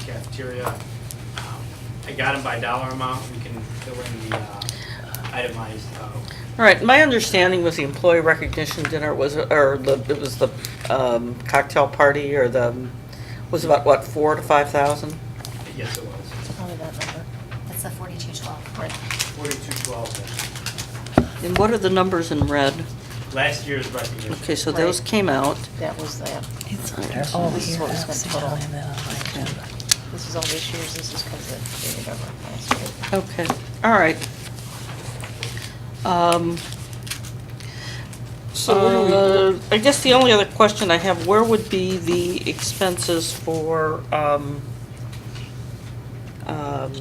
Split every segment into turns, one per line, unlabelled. cafeteria. Um, I got them by dollar amount, we can fill in the uh, itemized, uh,
All right, my understanding was the employee recognition dinner was, or the, it was the um, cocktail party or the, was about what, four to five thousand?
yes, it was,
Probably that number. That's the forty-two twelve.
forty-two twelve.
And what are the numbers in red?
Last year's recognition.
Okay, so those
Right.
came out.
That was that.
It's
Alright,
under
so
all
this is
here.
what we spent
See,
total.
I have that on my agenda.
This is all this year's, this is because it dated over last year.
Okay, all right. Um, So, I guess the only other question I have, where would be the expenses for, um, um,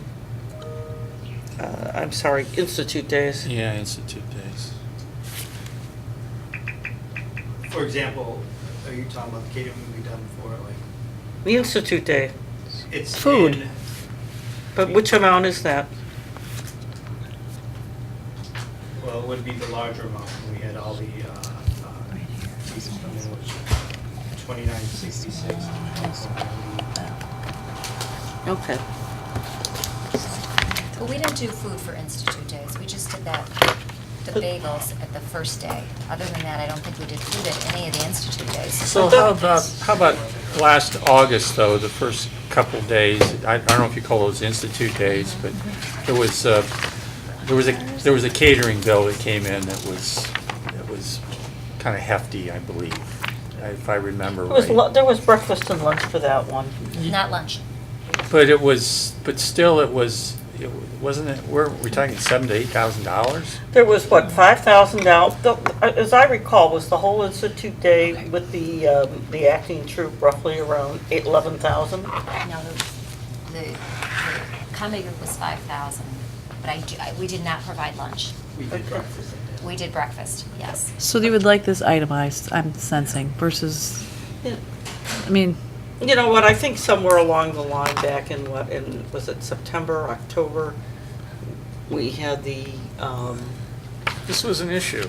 uh, I'm sorry, Institute Days?
Yeah, Institute Days.
For example, are you talking about the catering we've done for, like,
The Institute Day,
it's
Food.
in,
but which amount is that?
well, it would be the larger amount, we had all the, uh, uh,
Right here.
pieces from there, which, twenty-nine sixty-six.
Okay,
But we didn't do food for Institute Days, we just did that, the bagels at the first day. Other than that, I don't think we did food at any of the Institute Days.
So how about, how about last August, though, the first couple days, I I don't know if you call those Institute Days, but there was, uh, there was a, there was a catering bill that came in that was, that was kind of hefty, I believe, if I remember
There was
right.
lu- there was breakfast and lunch for that one.
Not lunch.
But it was, but still, it was, it wa- wasn't it, we're, we're talking seven to eight thousand dollars?
There was, what, five thousand dollars, as I recall, was the whole institute day with the, um, the acting troupe roughly around eight, eleven thousand?
No, the, the the comedy group was five thousand, but I, do- I- we did not provide lunch.
We did breakfast at that.
We did breakfast, yes.
So they would like this itemized, I'm sensing, versus, I mean,
You know what, I think somewhere along the line back in what, in, was it September, October, we had the, um,
This was an issue.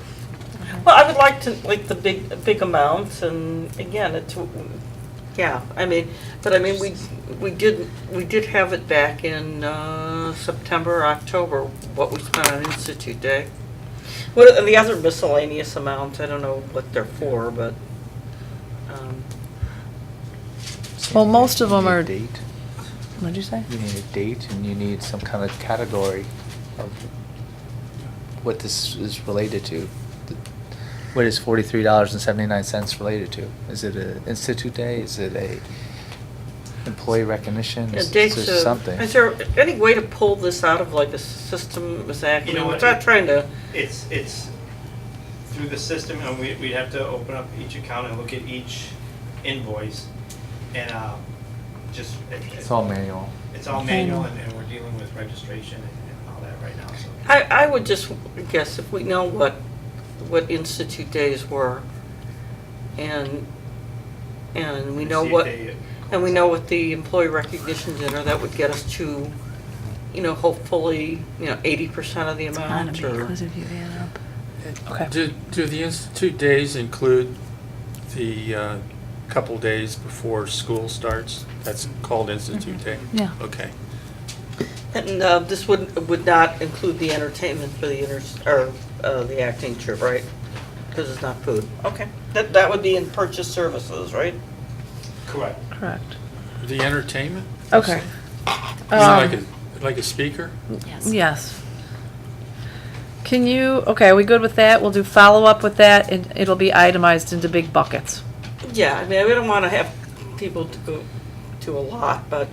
well, I would like to, like, the big, big amounts, and again, it's, yeah, I mean, but I mean, we, we did, we did have it back in, uh, September, October, what we spent on Institute Day. What, and the other miscellaneous amounts, I don't know what they're for, but, um,
Well, most of
You
them
need a
are-
Date,
what'd you say?
you need a date and you need some kind of category of what this is related to. The- What is forty-three dollars and seventy-nine cents related to? Is it a institute day? Is it a employee recognition?
Yeah,
Is
dates
is
of-
something?
Is there any way to pull this out of like a system, Ms.
You know
Ackman? I'm
what?
not trying to,
It's, it's through the system, and we, we'd have to open up each account and look at each invoice, and, um, just. it- it-
It's all manual.
It's all manual, and, and we're dealing with registration and and all that right now, so.
I, I would just guess if we know what, what institute days were and, and we know
See if
what,
they- uh,
and we know what the employee recognition dinner, that would get us to, you know, hopefully, you know, eighty percent of the
Gotta
amount
be,
or.
'cause if you add up. Okay.
Do, do the institute days include the uh, couple days before school starts? That's called institute day?
Mm-hmm. Yeah.
Okay.
And, uh, this would, would not include the entertainment for the inter, or, uh, the acting trip, right? Because it's not food. Okay. That, that would be in purchase services, right?
Correct.
Correct.
The entertainment?
Okay. Um,
Is it Like a, like a speaker?
Yes.
Yes. Can you, okay, are we good with that? We'll do follow-up with that, and it'll be itemized into big buckets.
Yeah, I mean, we don't want to have people to go to a lot, but,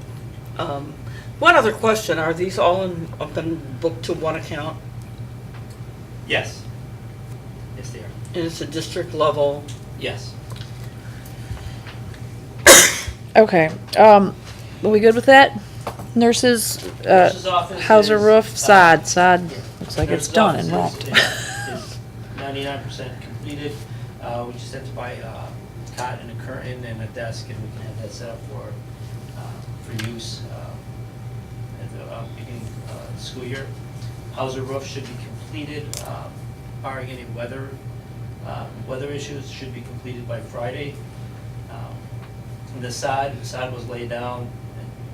um, one other question, are these all in, have been booked to one account?
Yes. Yes, they are.
And it's a district level?
Yes.
Okay, um, are we good with that? Nurses, uh,
Nurse's office
Hauser
is
Roof,
sod.
sod, sod, looks like it's
Nurse's
done and
office
wrapped.
is- is Ninety-nine percent completed. Uh, we just have to buy a cot and a curtain and a desk, and we can have that set up for, uh, for use, uh, at the, uh, beginning, uh, school year. Hauser roof should be completed, uh, barring any weather, uh, weather issues, should be completed by Friday. Um, The sod, the sod was laid down,